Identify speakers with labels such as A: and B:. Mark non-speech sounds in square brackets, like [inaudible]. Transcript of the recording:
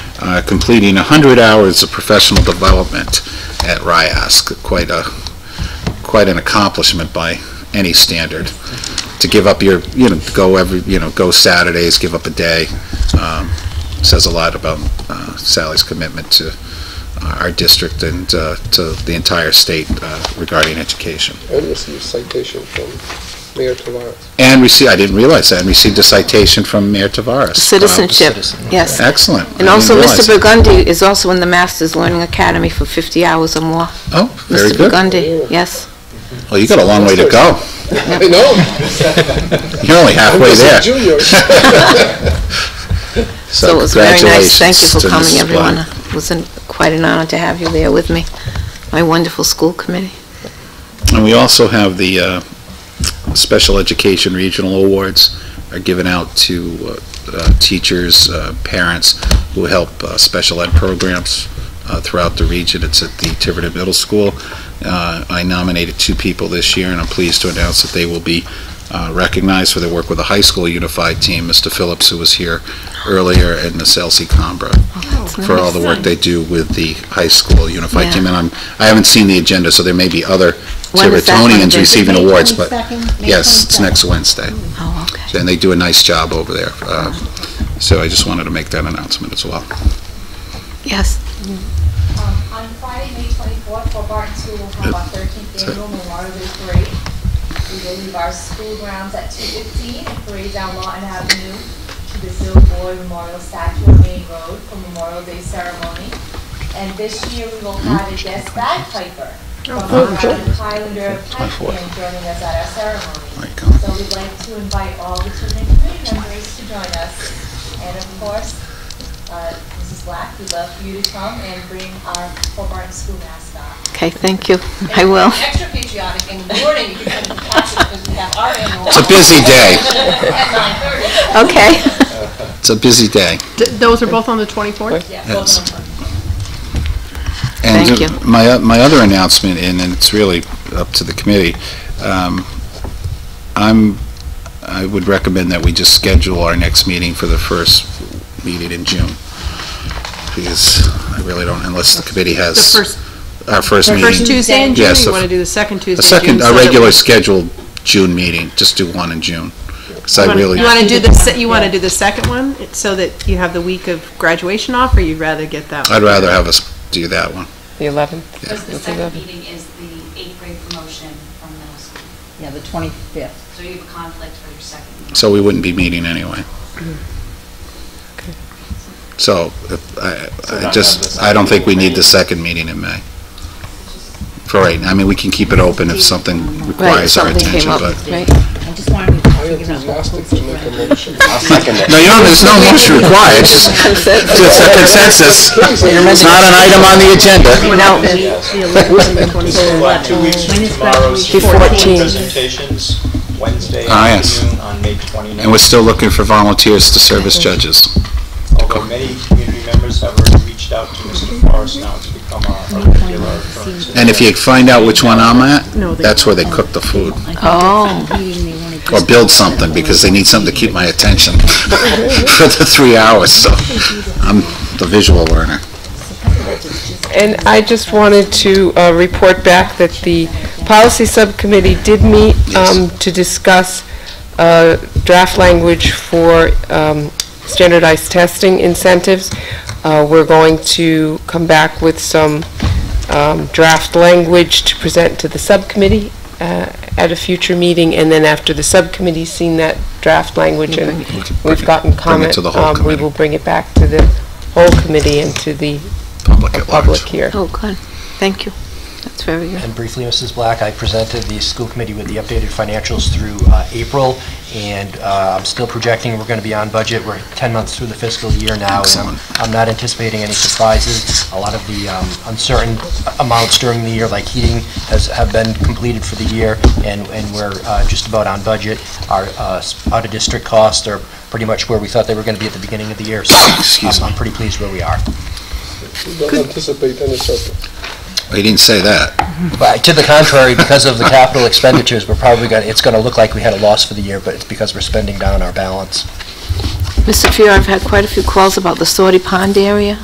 A: uh, completing 100 hours of professional development at RIASC. Quite a, quite an accomplishment by any standard. To give up your, you know, to go every, you know, go Saturdays, give up a day, um, says a lot about uh, Sally's commitment to our district and uh, to the entire state uh, regarding education.
B: And received citation from Mayor Tavares.
A: And received, I didn't realize that, and received a citation from Mayor Tavares.
C: Citizenship, yes.
A: Excellent. I
C: And also,
A: didn't realize
C: Mr.
A: that.
C: Burgundy is also in the Masters Learning Academy for 50 hours or more.
A: Oh, very
C: Mr.
A: good.
C: Burgundy, yes.
A: Well, you got a long way to go.
B: [laughs] I know,
A: You're only
B: I'm
A: halfway
B: just
A: there.
B: a junior.
C: So it was very nice. Thank you
A: congratulations to
C: for coming,
A: Mrs.
C: everyone.
A: Black.
C: It was an- quite an honor to have you there with me, my wonderful school committee.
A: And we also have the uh, Special Education Regional Awards are given out to uh, uh, teachers, uh, parents who help uh, special ed programs uh, throughout the region. It's at the Tiverton Middle School. Uh, I nominated two people this year, and I'm pleased to announce that they will be uh, recognized for their work with the high school unified team, Mr. Phillips, who was here earlier, and Miss Elsie Combra for all the work they do with the high school unified
C: Yeah.
A: team. And I'm, I haven't seen the agenda, so there may be other
C: When is that one,
A: Tivertonians
C: Vincent?
A: receiving
D: May
A: awards, but
D: 22nd, May
A: yes, it's
D: 22nd.
A: next Wednesday.
C: Oh, okay.
A: And they do a nice job over there. Uh, So I just wanted to make that announcement as well.
C: Yes,
D: Um, On Friday, May 24th, Fort Barton School will have our 13th annual Memorial Day Parade. We will leave our school grounds at 2:15 and parade down Lawton Avenue to the Silver Boy Memorial Statue on Main Road for Memorial Day ceremony. And this year, we will have a guest bagpiper from the Highland Highlander Pipe Band joining us at our ceremony.
A: Like, uh,
D: So we'd like to invite all the children and community members to join us. And of course, uh, Mrs. Black, we'd love for you to come and bring our Fort Barton School mascot.
C: okay, thank you. I will.
D: Extra patriotic in the morning, you can come to classes because we have our annual.
A: It's a busy day.
D: [laughs] At nine thirty.
C: [laughs] Okay.
A: It's a busy day.
E: D- Those are both on the 24th?
D: Yeah,
A: Yes.
D: both of them.
A: And
C: Thank you.
A: uh, My, o- my other announcement, and and it's really up to the committee, um, I'm, I would recommend that we just schedule our next meeting for the first meeting in June. Because I really don't, unless the committee
E: The
A: has.
E: first,
A: Our first
E: the
A: meeting.
E: first Tuesday in June, or
A: Yes,
E: you
A: the
E: want to do the second Tuesday
A: The
E: in
A: second,
E: June? so
A: our
E: that
A: regular
E: we-
A: scheduled June meeting, just do one in June. Because I
E: You wanna-
A: really,
E: You want to do the, se- you want to do the second one, it- so that you have the week of graduation off, or you'd rather get that? one?
A: I'd rather have us do that one.
F: The 11th?
G: Because the
F: Let's do
G: second
F: that.
G: meeting is the eighth grade promotion from middle school.
H: Yeah, the 25th.
G: So you have a conflict for your second meeting.
A: So we wouldn't be meeting anyway. So if- I, I just, I don't think we need the second meeting in May. For right, I mean, we can keep it open if something
C: Right,
A: requires our
C: something came
A: attention,
C: up,
A: but.
C: right?
H: I just wanted to
B: I am
H: figure out what
B: enthusiastic to
H: groups we're
B: make a
H: in.
B: motion.
A: No, you don't, there's no motion required, it's just just a consensus. It's not an item on the agenda.
C: No,
I: Well, Two weeks
H: When
I: from
H: is
I: tomorrow's
H: graduation?
I: presentations, Wednesday
A: Ah, yes.
I: afternoon on May 29th.
A: And we're still looking for volunteers to serve as judges.
I: Although many community members have already reached out to Mr. Forrest now to become our our regular occurrence.
A: And if you find out which one I'm at,
E: No, they-
A: that's where they cook the food.
H: I think it's
C: Oh.
H: some meeting they wanna
A: or
H: just-
A: build something, because they need something to keep my attention [laughs] for the three hours, so I'm the visual learner.
F: And I just wanted to uh, report back that the
A: Eh.
F: policy subcommittee did meet um, to discuss uh, draft language for um, standardized testing incentives. Uh, We're going to come back with some um, draft language to present to the subcommittee uh, at a future meeting, and then after the subcommittee's seen that draft language and we've gotten
A: Bring it
F: comment,
A: to the whole
F: um, we
A: committee,
F: will bring it back to the whole committee and to the
A: public at large.
F: public here.
C: oh, good, thank you. That's very good.
J: And briefly, Mrs. Black, I presented the school committee with the updated financials through uh, April, and uh, I'm still projecting we're going to be on budget. We're 10 months through the fiscal year now, and I'm-
A: Excellent.
J: I'm not anticipating any surprises. A lot of the um, uncertain amounts during the year, like heating, has, have been completed for the year, and, and we're uh, just about on budget. Our uh, s- out-of-district costs are pretty much where we thought they were going to be at the beginning of the year, so
A: Excuse
J: I'm- I'm pretty pleased where we are.
B: We don't anticipate any surplus.
A: He didn't say that.
J: But to the contrary, because of the capital expenditures, we're probably going, to it's going to look like we had a loss for the year, but it's because we're spending down our balance.
C: Mr. Fiore, I've had quite a few calls about the Sorty Pond area.